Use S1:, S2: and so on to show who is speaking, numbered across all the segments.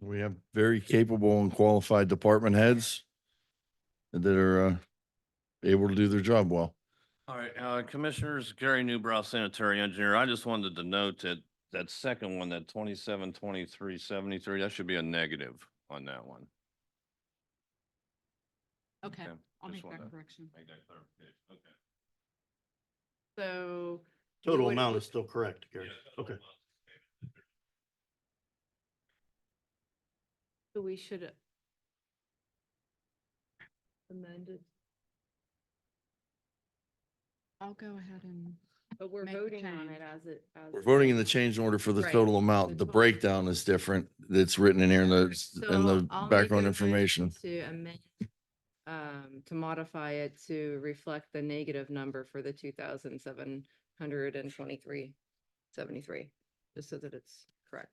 S1: We have very capable and qualified department heads that are uh, able to do their job well.
S2: All right, uh, Commissioners, Gary Newbrow, sanitary engineer. I just wanted to note that that second one, that twenty-seven, twenty-three, seventy-three, that should be a negative on that one.
S3: Okay,
S2: Okay,
S3: I'll
S2: just
S3: make that
S2: wanna
S3: correction.
S2: Make that clarification, okay.
S3: So. we
S4: Total
S3: would-
S4: amount is still correct, Gary. Okay.
S3: so We should. Amended. I'll go ahead and.
S5: But we're
S3: Make the
S5: voting on
S3: change.
S5: it as it. as
S1: We're
S5: it
S1: voting in the
S5: is.
S1: change order for the
S3: Right.
S1: total amount. The breakdown is different. That's written in here in
S5: So
S1: the, in the
S5: I'll make
S1: background
S5: a motion
S1: information.
S5: To amend, um, to modify it to reflect the negative number for the two thousand seven hundred and twenty-three, seventy-three, just so that it's correct.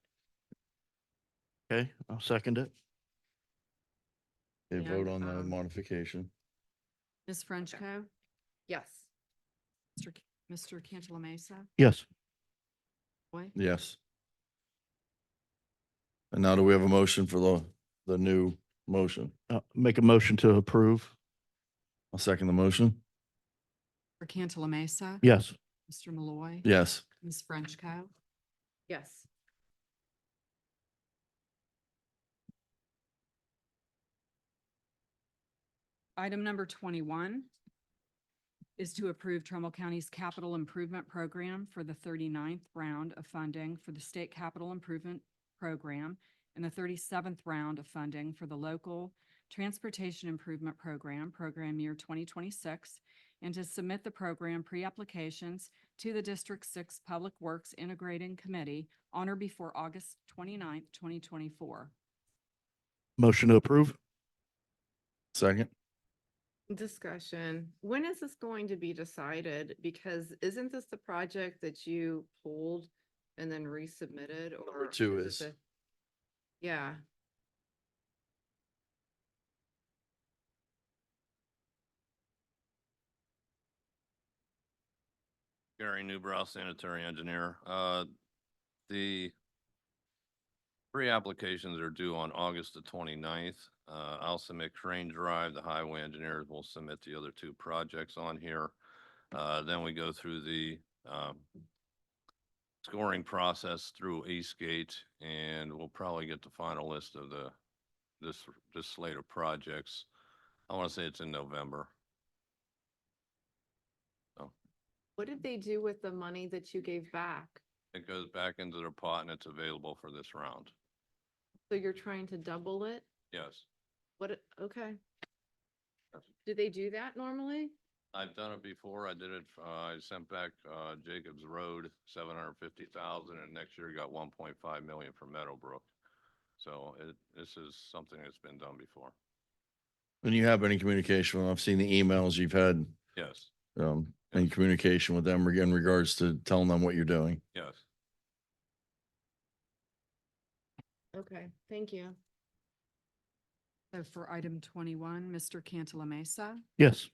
S4: Okay, I'll second it.
S1: They
S5: Yeah,
S1: vote on the
S5: um,
S1: modification.
S3: Ms. Frenchco,
S5: Yes.
S3: Mr. C- Mr. Cantala Mesa,
S4: Yes.
S3: Boy,
S1: Yes. And now do we have a motion for the, the new motion?
S4: Uh, make a motion to approve.
S1: I'll second the motion.
S3: for Cantala Mesa.
S4: Yes.
S3: Mr. Malloy.
S1: Yes.
S3: Ms. Frenchco.
S5: Yes.
S3: Item number twenty-one is to approve Trumbull County's capital improvement program for the 39th round of funding for the state capital improvement program and the thirty-seventh round of funding for the local transportation improvement program, program year twenty twenty-six, and to submit the program pre-applications to the District Six Public Works Integrating Committee on or before August 29th, twenty-four.
S4: Motion to approve.
S1: Second?
S5: Discussion. When is this going to be decided? Because isn't this the project that you pulled and then resubmitted or?
S1: two
S5: it
S1: is.
S5: the- Yeah.
S2: Gary Newbrow, sanitary engineer. Uh, the three applications are due on August the 29th. Uh, I'll submit Crane Drive, the highway engineers will submit the other two projects on here. Uh, then we go through the, um, scoring process through Eastgate and we'll probably get the final list of the, this, this slate of projects. I want to say it's in November.
S5: What did they do with the money that you gave back?
S2: It goes back into their pot and it's available for this round.
S5: So you're trying to double it?
S2: Yes,
S5: What, it- okay.
S2: Yes.
S5: Do they do that normally?
S2: I've done it before. I did it, uh, I sent back, uh, Jacobs Road, seven hundred fifty thousand, and next year got one point five million for Meadowbrook. So it, this is something that's been done before.
S1: And you have been in communication. I've seen the emails you've had,
S2: Yes,
S1: um, in communication with them in regards to telling them what you're doing.
S2: yes.
S5: Okay, thank you.
S3: So for item twenty-one, Mr. Cantala Mesa.
S4: Yes.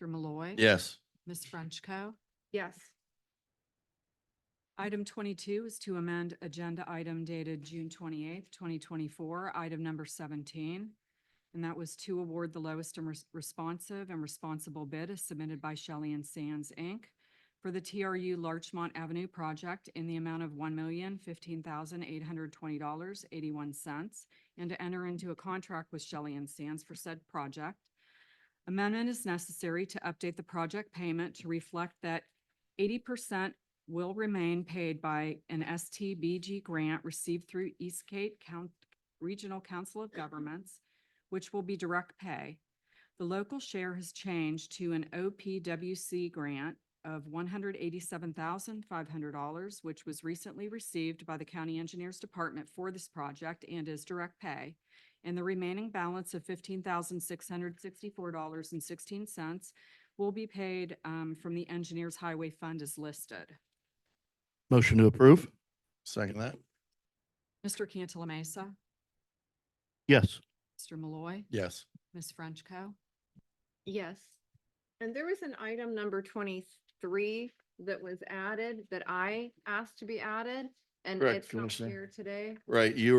S3: Mr. Malloy.
S1: Yes.
S3: Ms. Frenchco.
S5: Yes.
S3: Item twenty-two is to amend agenda item dated June twenty-eighth, twenty twenty-four, item number seventeen. And that was to award the lowest and res- responsive and responsible bid as submitted by Shelley and Sands, Inc. for the TRU Larchmont Avenue project in the amount of one million fifteen thousand eight hundred twenty dollars eighty-one cents and to enter into a contract with Shelley and Sands for said project. Amendment is necessary to update the project payment to reflect that eighty percent will remain paid by an STBG grant received through East Cape County Regional Council of Governments, which will be direct pay. The local share has changed to an OPWC grant of one hundred eighty-seven thousand five hundred dollars, which was recently received by the County Engineers Department for this project and is direct pay. And the remaining balance of fifteen thousand six hundred sixty-four dollars and sixteen cents will be paid um, from the Engineers Highway Fund as listed.
S4: Motion to approve.
S1: Second that?
S3: Mr. Cantala Mesa,
S4: Yes.
S3: Mr. Malloy,
S1: Yes.
S3: Ms. Frenchco.
S5: Yes. And there was an item number twenty-three that was added that I asked to be added and
S1: Correct,
S5: it's not
S1: Commissioner.
S5: here today.
S1: Right, you